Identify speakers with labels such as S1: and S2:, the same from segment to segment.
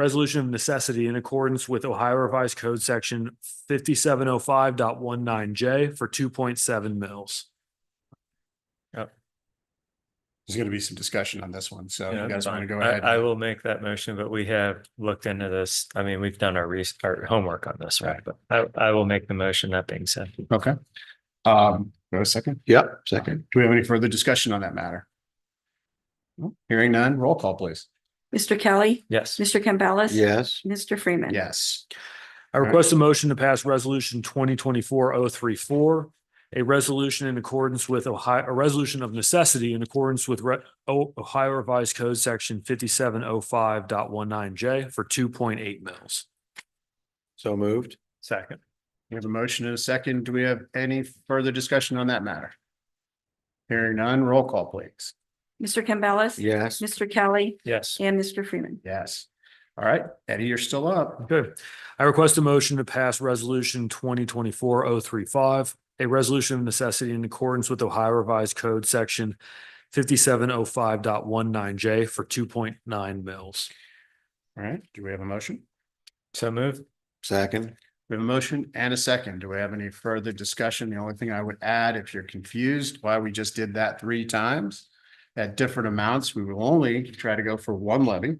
S1: resolution of necessity in accordance with Ohio Revised Code Section 570519 J for two point seven mils.
S2: There's gonna be some discussion on this one, so
S3: Yeah,
S2: you guys
S3: that's
S2: want to
S3: fine.
S2: go
S3: I-
S2: ahead?
S3: I will make that motion, but we have looked into this. I mean, we've done our res our homework on this, right? But I, I will make the motion. That being said.
S2: Okay. Um, go a second.
S4: Yep, second.
S2: Do we have any further discussion on that matter? No? Hearing none, roll call please.
S5: Mr. Kelly,
S3: Yes.
S5: Mr. Campbell.
S4: Yes,
S5: Mr. Freeman.
S2: Yes,
S1: I
S2: Alright.
S1: request a motion to pass Resolution twenty twenty-four oh three four, a resolution in accordance with Ohio, a resolution of necessity in accordance with Re- O- Ohio Revised Code Section 570519 J for two point eight mils.
S4: so moved.
S3: Second.
S2: we have a motion and a second. Do we have any further discussion on that matter? Hearing none, roll call please.
S5: Mr. Campbell.
S4: Yes,
S5: Mr. Kelly
S3: Yes.
S5: and Mr. Freeman.
S2: Yes. All right, Eddie, you're still up.
S1: Okay, I request a motion to pass resolution twenty twenty-four oh three five, a resolution of necessity in accordance with Ohio Revised Code Section fifty-seven oh five dot one nine J for two point nine mils.
S2: All right, do we have a motion?
S3: So moved.
S4: second.
S2: We have a motion and a second. Do we have any further discussion? The only thing I would add, if you're confused why we just did that three times at different amounts, we will only try to go for one levy.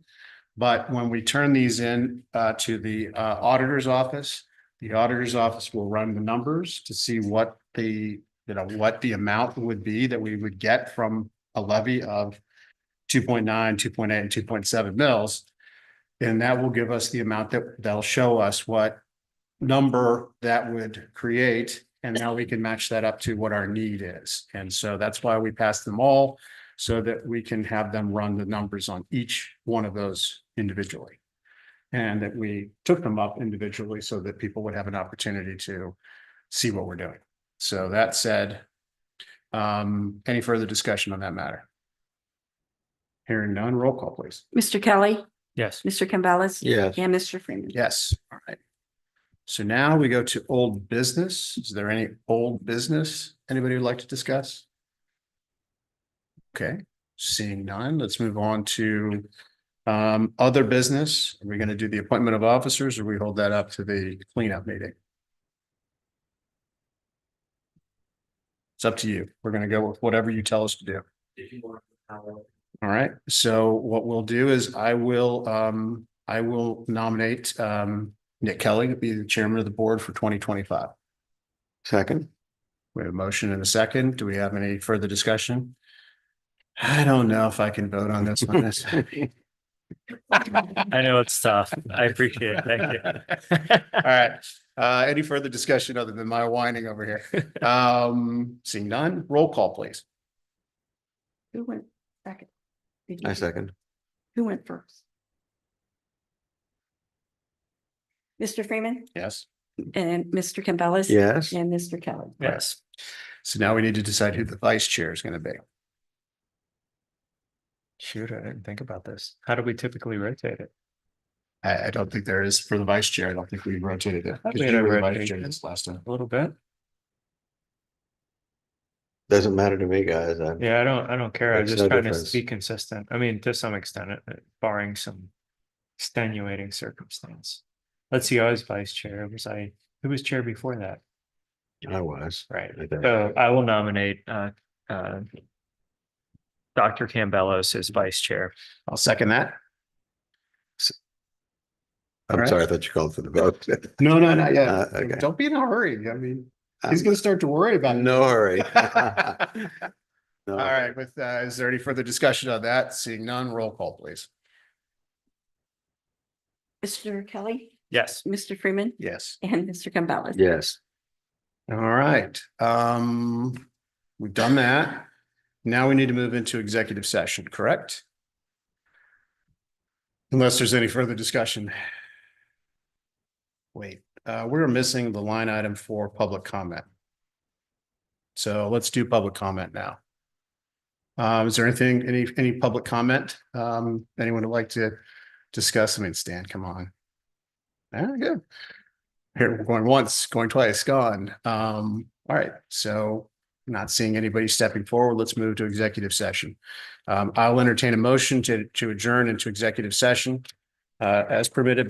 S2: But when we turn these in uh, to the uh, auditor's office, the auditor's office will run the numbers to see what the, you know, what the amount would be that we would get from a levy of 2.9, 2.8, and two point seven mils. And that will give us the amount that they'll show us what number that would create. And now we can match that up to what our need is. And so that's why we pass them all so that we can have them run the numbers on each one of those individually. And that we took them up individually so that people would have an opportunity to see what we're doing. So that said, um, any further discussion on that matter? Hearing none, roll call please.
S5: Mr. Kelly,
S3: Yes.
S5: Mr. Campbell.
S4: Yes,
S5: And Mr. Freeman.
S2: Yes, all right. So now we go to old business. Is there any old business anybody would like to discuss? Okay, seeing none, let's move on to um, other business. Are we going to do the appointment of officers or we hold that up to the cleanup meeting? It's up to you. We're going to go with whatever you tell us to do. All right, so what we'll do is I will, um, I will nominate, um, Nick Kelly to be the chairman of the board for twenty twenty-five.
S4: second.
S2: We have a motion and a second. Do we have any further discussion? I don't know if I can vote on this one. That's-
S3: I know it's tough. I appreciate it. Thank you.
S2: All right, uh, any further discussion other than my whining over here? Um, seeing none, roll call, please.
S5: Who went second? Did
S4: I
S5: you-
S4: second.
S5: Who went first? Mr. Freeman
S2: Yes.
S5: and Mr. Campbell.
S4: Yes,
S5: And Mr. Kelly.
S3: Yes.
S2: So now we need to decide who the vice chair is going to be.
S3: Shoot, I didn't think about this. How do we typically rotate it?
S2: I, I don't think there is for the vice chair. I don't think we rotated it.
S3: I
S2: 'Cause
S3: think
S2: you
S3: I
S2: were the
S3: rotated
S2: vice chair
S3: it.
S2: this Last time.
S3: A little bit.
S4: doesn't matter to me, guys. I,
S3: Yeah, I don't, I don't care. I'm
S4: Makes
S3: just
S4: no
S3: trying to
S4: difference.
S3: be consistent. I mean, to some extent, uh, barring some extenuating circumstance. Let's see, I was vice chair. Was I, who was chair before that?
S4: I was.
S3: Right.
S4: I think.
S3: So I will nominate, uh, uh, Dr. Campbellis as vice chair.
S2: I'll second that.
S4: I'm sorry, I thought you called for the vote.
S2: No, no, not
S4: Uh, okay.
S2: yet. Don't be in a hurry. I mean, he's
S4: Um,
S2: gonna start to worry about it.
S4: No hurry.
S2: All
S4: No.
S2: right, with, uh, is there any further discussion on that? Seeing none, roll call, please.
S5: Mr. Kelly,
S3: Yes.
S5: Mr. Freeman
S2: Yes.
S5: and Mr. Campbell.
S4: Yes,
S2: All right, um, we've done that. Now we need to move into executive session, correct? Unless there's any further discussion. Wait, uh, we're missing the line item for public comment. So let's do public comment now. Uh, is there anything, any, any public comment? Um, anyone would like to discuss? I mean, Stan, come on. All right, good. Here, we're going once, going twice, gone. Um, all right, so not seeing anybody stepping forward, let's move to executive session. Um, I'll entertain a motion to, to adjourn into executive session uh, as permitted